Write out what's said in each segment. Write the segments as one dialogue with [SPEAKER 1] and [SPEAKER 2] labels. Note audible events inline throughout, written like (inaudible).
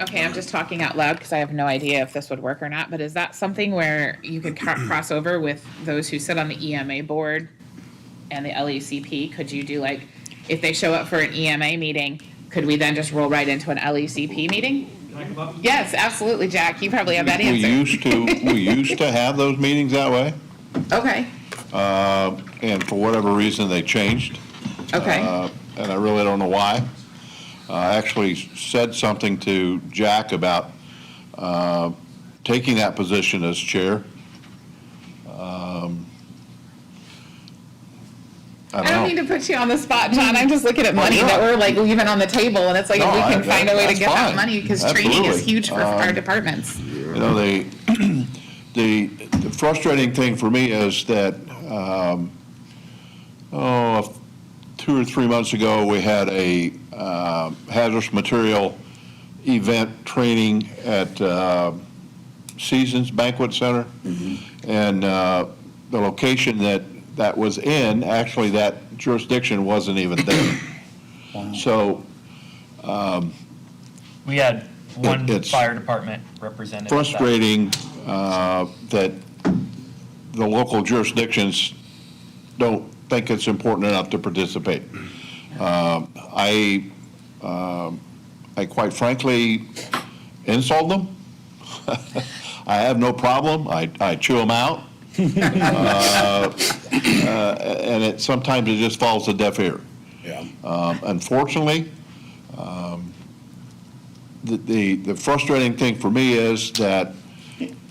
[SPEAKER 1] Okay, I'm just talking out loud because I have no idea if this would work or not, but is that something where you could
[SPEAKER 2] (clears throat)
[SPEAKER 1] cro- cross over with those who sit on the EMA board and the LECP? Could you do like, if they show up for an EMA meeting, could we then just roll right into an LECP meeting? Yes, absolutely, Jack. You probably have that
[SPEAKER 2] We
[SPEAKER 1] answer.
[SPEAKER 2] used to,
[SPEAKER 1] (laughs)
[SPEAKER 2] we used to have those meetings that way,
[SPEAKER 1] Okay,
[SPEAKER 2] uh, and for whatever reason, they changed.
[SPEAKER 1] okay,
[SPEAKER 2] uh, and I really don't know why. Uh, I actually said something to Jack about uh, taking that position as chair. Um, I
[SPEAKER 1] I don't
[SPEAKER 2] don't
[SPEAKER 1] mean
[SPEAKER 2] know.
[SPEAKER 1] to put you on the spot, John. I'm just looking at
[SPEAKER 2] Well,
[SPEAKER 1] money
[SPEAKER 2] yeah.
[SPEAKER 1] that we're like leaving on the table, and it's like if
[SPEAKER 2] No,
[SPEAKER 1] we
[SPEAKER 2] I-
[SPEAKER 1] can
[SPEAKER 2] that-
[SPEAKER 1] find a way to
[SPEAKER 2] that's
[SPEAKER 1] get that
[SPEAKER 2] fine.
[SPEAKER 1] money because training is
[SPEAKER 2] Absolutely. Um,
[SPEAKER 1] huge for our departments.
[SPEAKER 2] You know, the, (clears throat) the the frustrating thing for me is that, um, oh, two or three months ago, we had a uh, hazardous material event training at uh, Seasons Banquet Center. And uh, the location that that was in, actually, that jurisdiction wasn't even there. So
[SPEAKER 3] We had one
[SPEAKER 2] it's-
[SPEAKER 3] fire department representative. that-
[SPEAKER 2] frustrating uh, that the local jurisdictions don't think it's important enough to participate. Um, I, um, I quite frankly insult them. (laughs) I have no problem, I, I chew them out. Uh, uh, And it, sometimes it just falls a deaf ear.
[SPEAKER 4] Yeah.
[SPEAKER 2] Um, Unfortunately, um, the- the the frustrating thing for me is that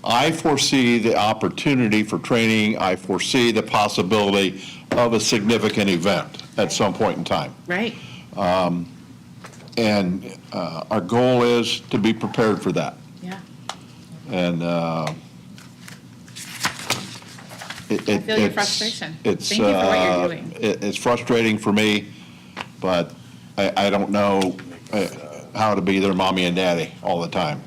[SPEAKER 2] I foresee the opportunity for training, I foresee the possibility of a significant event at some point in time.
[SPEAKER 1] Right.
[SPEAKER 2] And uh, our goal is to be prepared for that.
[SPEAKER 1] Yeah.
[SPEAKER 2] And uh, it-
[SPEAKER 1] I feel
[SPEAKER 2] it-
[SPEAKER 1] your
[SPEAKER 2] it's-
[SPEAKER 1] frustration.
[SPEAKER 2] It's,
[SPEAKER 1] Thank you for what you're
[SPEAKER 2] uh,
[SPEAKER 1] doing.
[SPEAKER 2] it- It's frustrating for me, but I, I don't know uh, how to be their mommy and daddy all the time.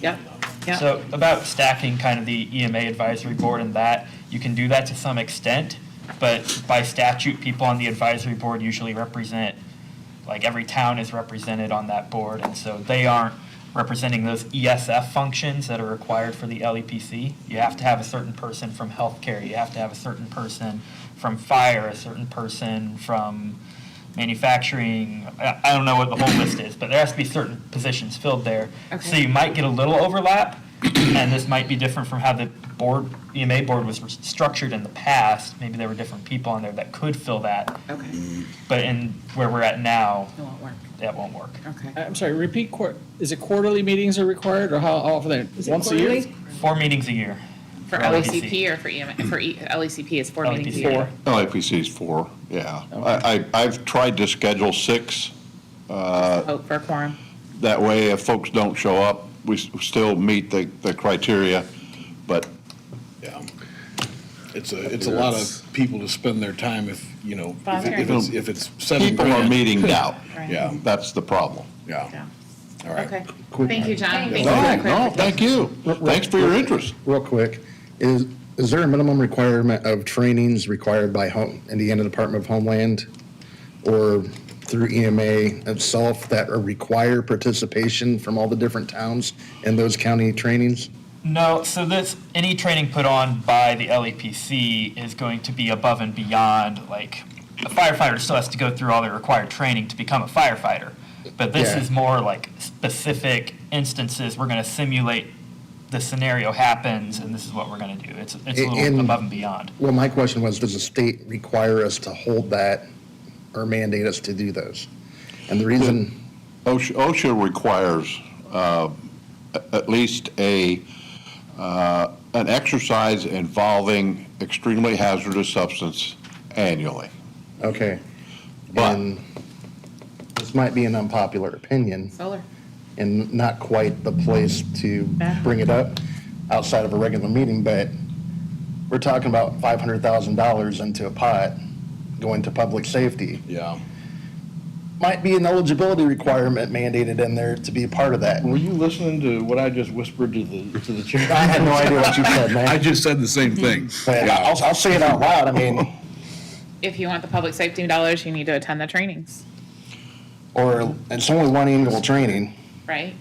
[SPEAKER 1] Yep. Yep.
[SPEAKER 3] So about stacking kind of the EMA advisory board and that, you can do that to some extent, but by statute, people on the advisory board usually represent, like every town is represented on that board, and so they aren't representing those ESF functions that are required for the LEPC. You have to have a certain person from healthcare, you have to have a certain person from fire, a certain person from manufacturing. I, I don't know what the whole list is, but there has to be certain positions filled there. So
[SPEAKER 1] Okay.
[SPEAKER 3] you might get a little overlap, and this might be different from how the board, EMA board was structured in the past. Maybe there were different people on there that could fill that,
[SPEAKER 1] Okay.
[SPEAKER 3] but in where we're at now,
[SPEAKER 1] It won't work.
[SPEAKER 3] that won't work.
[SPEAKER 1] Okay.
[SPEAKER 5] I'm sorry, repeat, quar- is it quarterly meetings are required, or how often, are- once a year?
[SPEAKER 3] Four meetings a year.
[SPEAKER 1] For E
[SPEAKER 3] For E
[SPEAKER 1] LECP or for EMA, for E- LECP is four meetings a
[SPEAKER 3] LEPC.
[SPEAKER 1] year.
[SPEAKER 2] LAPC is four, yeah. I, I- I've tried to schedule six.
[SPEAKER 1] Hope Oh, for a quorum.
[SPEAKER 2] That way, if folks don't show up, we s- still meet the, the criteria, but
[SPEAKER 4] Yeah. It's a, it's a lot of people to spend their time if, you know, if it- if it's, if it's seven
[SPEAKER 2] people are
[SPEAKER 4] grand.
[SPEAKER 2] meeting now.
[SPEAKER 1] Right.
[SPEAKER 4] Yeah,
[SPEAKER 2] That's the problem.
[SPEAKER 4] yeah,
[SPEAKER 1] Yeah.
[SPEAKER 4] all right.
[SPEAKER 1] Okay. Thank you, John. Thank you.
[SPEAKER 2] No,
[SPEAKER 1] for
[SPEAKER 2] no,
[SPEAKER 1] that
[SPEAKER 2] thank you. Thanks for your interest.
[SPEAKER 6] real quick, is, is there a minimum requirement of trainings required by home, Indiana Department of Homeland? Or through EMA itself that require participation from all the different towns in those county trainings?
[SPEAKER 3] No, so this, any training put on by the LEPC is going to be above and beyond, like, a firefighter still has to go through all the required training to become a firefighter. But this
[SPEAKER 6] Yeah.
[SPEAKER 3] is more like specific instances, we're gonna simulate the scenario happens, and this is what we're gonna do. It's, it's a little
[SPEAKER 6] In-
[SPEAKER 3] above and beyond.
[SPEAKER 6] Well, my question was, does the state require us to hold that or mandate us to do those? And the reason,
[SPEAKER 2] OSHA OSHA requires uh, a- at least a, uh, an exercise involving extremely hazardous substance annually.
[SPEAKER 6] okay.
[SPEAKER 2] But-
[SPEAKER 6] and This might be an unpopular opinion.
[SPEAKER 1] Solar.
[SPEAKER 6] and not quite the place to
[SPEAKER 1] Yeah.
[SPEAKER 6] bring it up outside of a regular meeting, but we're talking about five hundred thousand dollars into a pot going to public safety.
[SPEAKER 4] Yeah,
[SPEAKER 6] Might be an eligibility requirement mandated in there to be a part of that.
[SPEAKER 4] Were you listening to what I just whispered to the, to the chair?
[SPEAKER 6] I had no idea what you
[SPEAKER 4] (laughs)
[SPEAKER 6] said, man,
[SPEAKER 4] just said the same thing.
[SPEAKER 6] but I'll, I'll say it out loud, I mean,
[SPEAKER 1] If you want the public safety dollars, you need to attend the trainings,
[SPEAKER 6] or it's only one annual training.
[SPEAKER 1] right?